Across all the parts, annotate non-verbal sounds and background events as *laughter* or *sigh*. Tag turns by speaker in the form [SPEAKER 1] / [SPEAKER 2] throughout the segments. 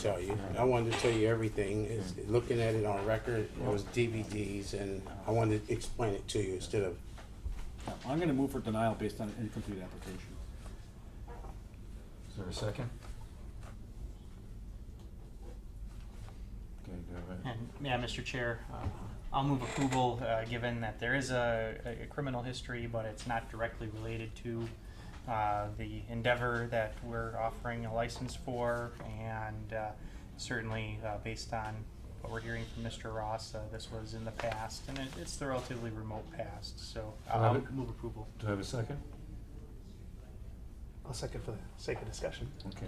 [SPEAKER 1] tell you. I wanted to tell you everything. Is looking at it on record, it was DVDs, and I wanted to explain it to you instead of.
[SPEAKER 2] Yeah, I'm gonna move for denial based on an incomplete application.
[SPEAKER 3] Is there a second? Okay, do I have
[SPEAKER 4] And, yeah, Mr. Chair, uh, I'll move approval, uh, given that there is a, a criminal history, but it's not directly related to, uh, the endeavor that we're offering a license for, and, uh, certainly, uh, based on what we're hearing from Mr. Ross, uh, this was in the past, and it, it's the relatively remote past, so I'll I'll
[SPEAKER 3] Robert?
[SPEAKER 4] move approval.
[SPEAKER 3] a- do I have a second?
[SPEAKER 5] I'll second for the sake of discussion.
[SPEAKER 3] Okay.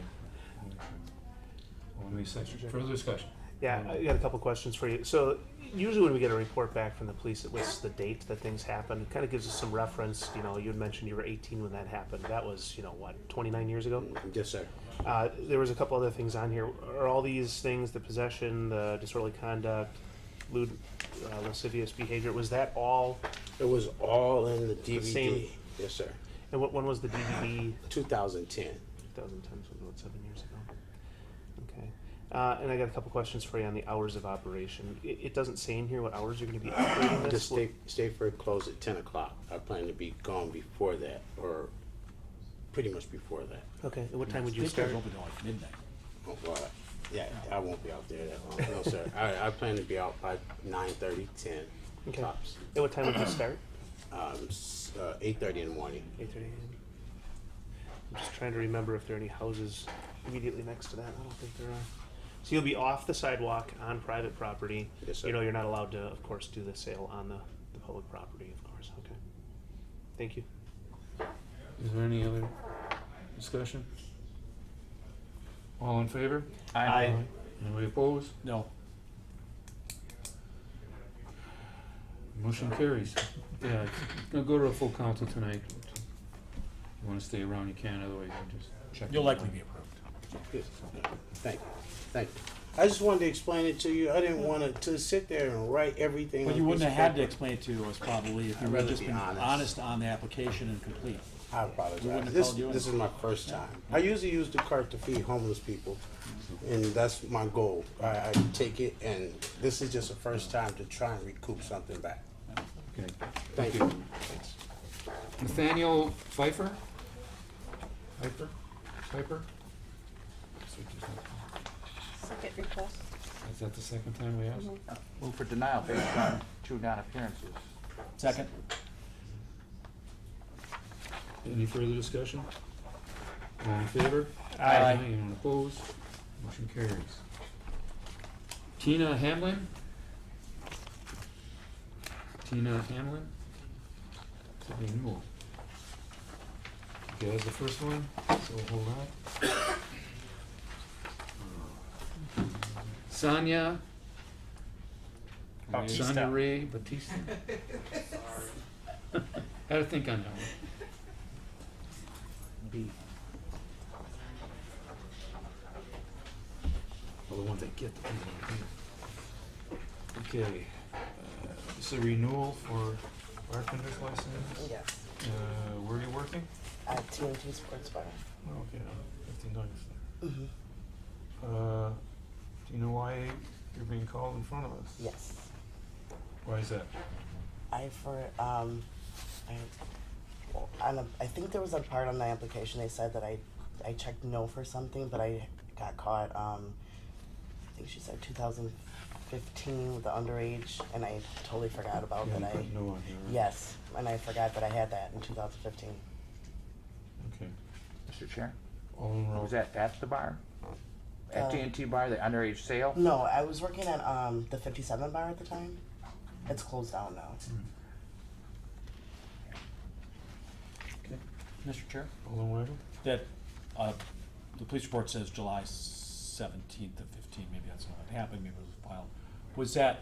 [SPEAKER 3] Only
[SPEAKER 5] Mr.
[SPEAKER 3] second,
[SPEAKER 5] Chair.
[SPEAKER 3] further discussion.
[SPEAKER 5] Yeah, I got a couple questions for you. So usually when we get a report back from the police, it lists the date that things happened. Kind of gives us some reference. You know, you had mentioned you were 18 when that happened. That was, you know, what, 29 years ago?
[SPEAKER 1] Yes, sir.
[SPEAKER 5] Uh, there was a couple other things on here. Are all these things, the possession, the disorderly conduct, lewd, uh, lascivious behavior, was that all?
[SPEAKER 1] It was all in the
[SPEAKER 5] same-
[SPEAKER 1] DVD. Yes, sir.
[SPEAKER 5] And what, when was the DVD?
[SPEAKER 1] 2010.
[SPEAKER 5] 2010, so about seven years ago. Okay. Uh, and I got a couple questions for you on the hours of operation. It, it doesn't say in here what hours you're going to be operating
[SPEAKER 1] The
[SPEAKER 5] this.
[SPEAKER 1] state, Stateford closed at 10 o'clock. I plan to be gone before that, or pretty much before that.
[SPEAKER 5] Okay. And what time would you
[SPEAKER 2] State
[SPEAKER 5] start?
[SPEAKER 2] fair's open till like midnight.
[SPEAKER 1] Oh, well, yeah, I won't be out there that long. No,
[SPEAKER 5] *laughs*
[SPEAKER 1] sir. I, I plan to be out by 9:30, 10
[SPEAKER 5] Okay.
[SPEAKER 1] tops.
[SPEAKER 5] And what time would you *clears throat* start?
[SPEAKER 1] Um, s- uh, 8:30 in the morning.
[SPEAKER 5] 8:30 a.m. I'm just trying to remember if there are any houses immediately next to that. I don't think there are. So you'll be off the sidewalk on private property.
[SPEAKER 1] Yes, sir.
[SPEAKER 5] You know, you're not allowed to, of course, do the sale on the, the public property, of course. Okay. Thank you.
[SPEAKER 3] Is there any other discussion? All in favor?
[SPEAKER 5] Aye.
[SPEAKER 3] Anybody opposed?
[SPEAKER 2] No,
[SPEAKER 3] Motion carries. Yeah, it's gonna go to a full council tonight. You wanna stay around, you can, otherwise you just check.
[SPEAKER 2] you'll
[SPEAKER 3] it
[SPEAKER 2] likely
[SPEAKER 3] out.
[SPEAKER 2] be approved.
[SPEAKER 1] Yes. Thank you, thank you. I just wanted to explain it to you. I didn't want to, to sit there and write everything.
[SPEAKER 2] But
[SPEAKER 1] on
[SPEAKER 2] you
[SPEAKER 1] a
[SPEAKER 2] wouldn't
[SPEAKER 1] piece
[SPEAKER 2] have
[SPEAKER 1] of
[SPEAKER 2] had to
[SPEAKER 1] paper.
[SPEAKER 2] explain it to us probably if you
[SPEAKER 1] I'd
[SPEAKER 2] would
[SPEAKER 1] rather
[SPEAKER 2] just
[SPEAKER 1] be
[SPEAKER 2] been
[SPEAKER 1] honest.
[SPEAKER 2] honest on the application and complete.
[SPEAKER 1] I
[SPEAKER 2] We wouldn't
[SPEAKER 1] apologize.
[SPEAKER 2] have
[SPEAKER 1] This,
[SPEAKER 2] called you in.
[SPEAKER 1] this is my first time. I usually use the cart to feed homeless people, and that's my goal. I, I take it, and this is just the first time to try and recoup something back.
[SPEAKER 3] Okay.
[SPEAKER 1] Thank you.
[SPEAKER 3] Nathaniel Pfeiffer? Pfeiffer? Pfeiffer?
[SPEAKER 6] Second request.
[SPEAKER 3] Is that the second time we asked?
[SPEAKER 7] Move for denial based on two non-appearances.
[SPEAKER 2] Second,
[SPEAKER 3] Any further discussion? All in favor?
[SPEAKER 2] Aye.
[SPEAKER 4] Uh,
[SPEAKER 3] Anyone opposed? Motion carries. Tina Hamlin? Tina Hamlin? Could be new. Okay, that's the first one, so hold on. Sonia?
[SPEAKER 4] Bautista.
[SPEAKER 3] Sonia Ray Batista. Had to think on that one.
[SPEAKER 7] B.
[SPEAKER 3] Well, the ones that get the people that do. Okay, uh, it's a renewal for bartender's license.
[SPEAKER 8] Yes,
[SPEAKER 3] Uh, where are you working?
[SPEAKER 8] at TNT Sports Bar.
[SPEAKER 3] Oh, okay, on fifteen dollars.
[SPEAKER 8] Mhm.
[SPEAKER 3] Uh, do you know why you're being called in front of us?
[SPEAKER 8] Yes,
[SPEAKER 3] Why is that?
[SPEAKER 8] I for um, I well, on a, I think there was a part on the application they said that I I checked no for something, but I got caught. Um, I think she said 2015 with the underage, and I totally forgot about
[SPEAKER 3] You
[SPEAKER 8] that.
[SPEAKER 3] haven't
[SPEAKER 8] I
[SPEAKER 3] put No on here, right?
[SPEAKER 8] yes, and I forgot that I had that in 2015.
[SPEAKER 3] Okay.
[SPEAKER 7] Mr. Chair,
[SPEAKER 3] All in row.
[SPEAKER 7] was that at the bar?
[SPEAKER 8] Uh,
[SPEAKER 7] At T&T bar, the underage sale?
[SPEAKER 8] No, I was working at um the 57 bar at the time. It's closed down now.
[SPEAKER 7] Mr. Chair?
[SPEAKER 3] All in whatever?
[SPEAKER 2] that, uh, the police report says July seventeenth of fifteen, maybe that's not what happened, maybe it was filed. Was that,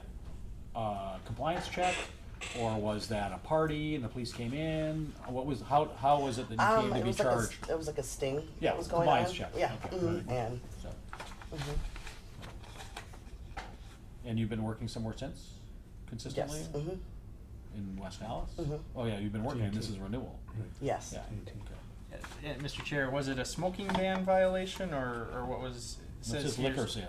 [SPEAKER 2] uh, compliance check, or was that a party and the police came in? What was, how, how was it that you
[SPEAKER 8] Um,
[SPEAKER 2] came
[SPEAKER 8] it
[SPEAKER 2] to be
[SPEAKER 8] was like a,
[SPEAKER 2] charged?
[SPEAKER 8] it was like a sting.
[SPEAKER 2] Yeah,
[SPEAKER 8] that was going
[SPEAKER 2] compliance
[SPEAKER 8] on.
[SPEAKER 2] check.
[SPEAKER 8] Yeah,
[SPEAKER 2] Okay,
[SPEAKER 8] mhm,
[SPEAKER 2] right.
[SPEAKER 8] and
[SPEAKER 2] So-
[SPEAKER 8] mhm,
[SPEAKER 2] And you've been working somewhere since, consistently?
[SPEAKER 8] yes, mhm,
[SPEAKER 2] In West Dallas?
[SPEAKER 8] Mhm.
[SPEAKER 2] Oh, yeah, you've been working, and this
[SPEAKER 3] TNT.
[SPEAKER 2] is renewal.
[SPEAKER 8] yes.
[SPEAKER 2] Yeah.
[SPEAKER 3] Okay.
[SPEAKER 4] Uh, uh, Mr. Chair, was it a smoking ban violation, or, or what was, It
[SPEAKER 2] It says
[SPEAKER 4] here's-
[SPEAKER 2] liquor sales.